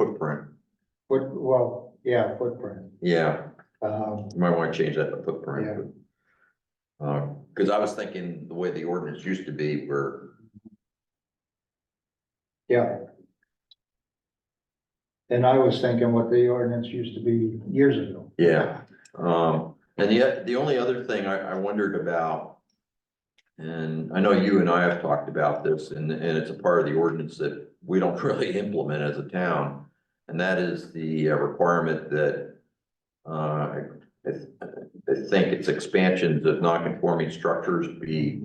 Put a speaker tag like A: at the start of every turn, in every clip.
A: footprint.
B: Foot, well, yeah, footprint,
A: Yeah,
B: um,
A: you might wanna change that to
B: Yeah.
A: footprint. but- Uh, cause I was thinking the way the ordinance used to be where
B: yeah. And I was thinking what the ordinance used to be years ago.
A: Yeah, um, and the, the only other thing I, I wondered about. And I know you and I have talked about this and, and it's a part of the ordinance that we don't really implement as a town. And that is the uh, requirement that, uh, I, I think it's expansions of non-conforming structures be,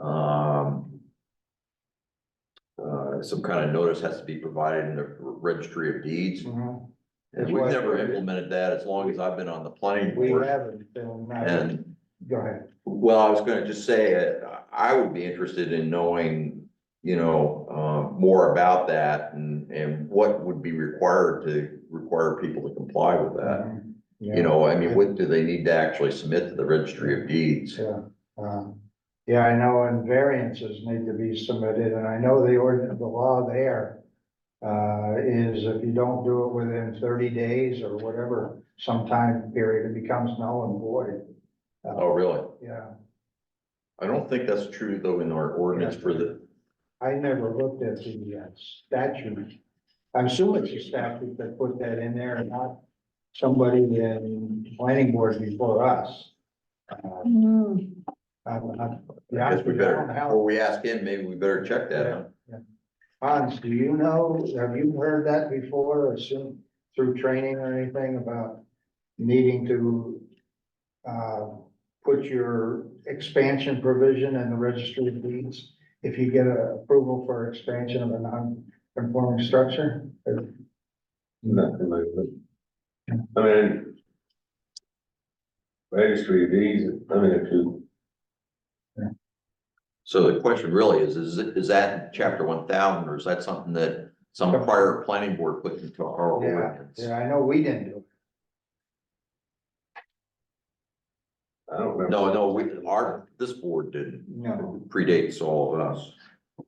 B: Mm-hmm.
A: um. Uh, some kind of notice has to be provided in the registry of deeds.
B: Mhm.
A: And
B: That's
A: we've
B: why-
A: never implemented that as long as I've been on the planning
B: We
A: board.
B: haven't, been-
A: And,
B: go ahead,
A: well, I was gonna just say, uh, I would be interested in knowing, you know, uh, more about that and, and what would be required to require people to comply with that.
B: Mm-hmm. yeah,
A: You know, I mean, what do they need to actually submit to the registry of deeds?
B: yeah, um, yeah, I know, and variances need to be submitted, and I know the ordinance, the law there. Uh, is if you don't do it within thirty days or whatever, some time period, it becomes null and void,
A: Oh, really?
B: yeah.
A: I don't think that's true though in our ordinance for the,
B: I never looked at the uh, statute. I'm assuming it's a statute that put that in there and not somebody in planning board before us. Uh, I'm- I'm-
A: I guess we better,
B: John, how-
A: before we ask him, maybe we better check that out.
B: Hans, do you know, have you heard that before or soon through training or anything about needing to uh, put your expansion provision in the registry of deeds if you get a approval for expansion of a non-conforming structure?
C: Nothing like that. I mean. Registry of deeds, I mean, if you,
A: So the question really is, is, it- is that in chapter one thousand, or is that something that some prior planning board put into our ordinance?
B: Yeah, I know we didn't do
C: I don't remember.
A: No, no, we, our, this board
B: it,
A: didn't,
B: no.
A: predates all of us.
C: I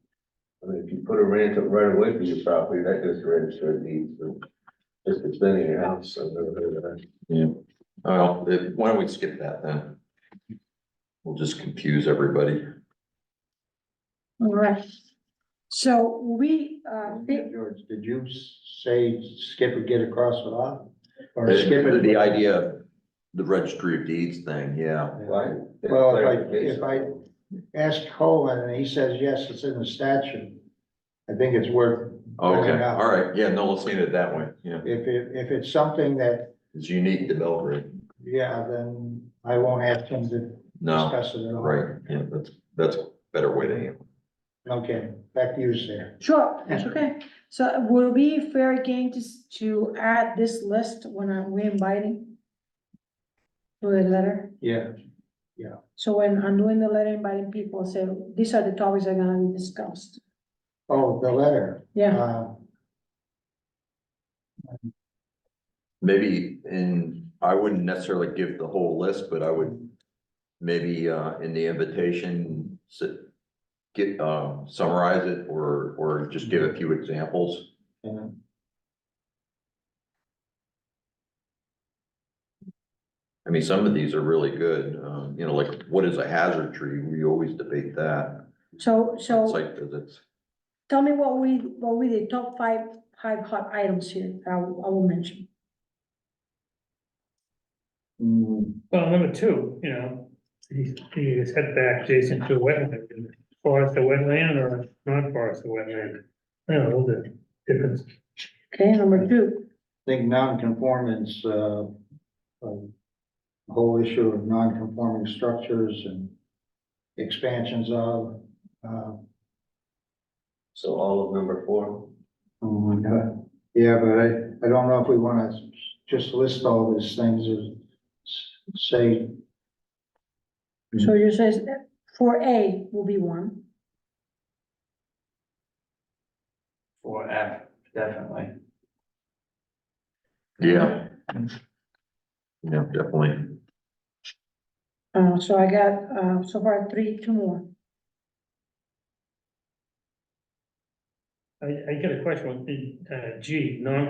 C: mean, if you put a rent up right away from your property, that goes to register of deeds, so. Just expanding your house, I've never heard of that.
A: Yeah. Well, if- why don't we skip that then? We'll just confuse everybody.
D: All right. So we, uh, thi-
B: George, did you say skip it, get across the lot? Or skip
A: The
B: it?
A: the idea, of the registry of deeds thing, yeah.
C: Why?
B: Well, if I- if I- asked Colin, and he says, yes, it's in the statute. I think it's worth,
A: Okay,
B: Yeah.
A: all right, yeah, no, let's leave it that way, yeah.
B: if it, if it's something that,
A: It's unique to Belgrade.
B: yeah, then I won't ask him to
A: No,
B: discuss it at all.
A: right, yeah, that's, that's a better way to handle it.
B: Okay, back to you, Sarah.
D: sure, that's okay. So will it be fair game to, s- to add this list when I'm re-inviting? To the letter?
B: Yeah.
D: So when I'm doing the letter inviting people, say, these are the topics that are gonna be discussed.
B: Oh, the letter,
D: Yeah,
B: uh,
A: Maybe in, I wouldn't necessarily give the whole list, but I would maybe uh in the invitation s- get uh summarize it or or just give a few examples.
B: and
A: I mean, some of these are really good, um, you know, like what is a hazard tree? We always debate that.
D: so,
A: on
D: so
A: Site visits.
D: tell me what we, what we did, top five, five hot items here, I will, I will mention.
E: Well, number two, you know, the the setback adjacent to a wetland, forest or wetland or non-forest or wetland. I don't know, the difference.
D: Okay, number two,
B: I think non-conformance, uh, um, the whole issue of non-conforming structures and expansions of, uh,
C: So all of number four,
B: Oh my God, yeah, but I, I don't know if we wanna just list all these things or s- say,
D: so you says uh, four A will be one,
F: Four F, definitely.
A: Yeah. Yeah, definitely.
D: uh, so I got, uh, so far three, two more.
E: I, I get a question, with the, uh, G, non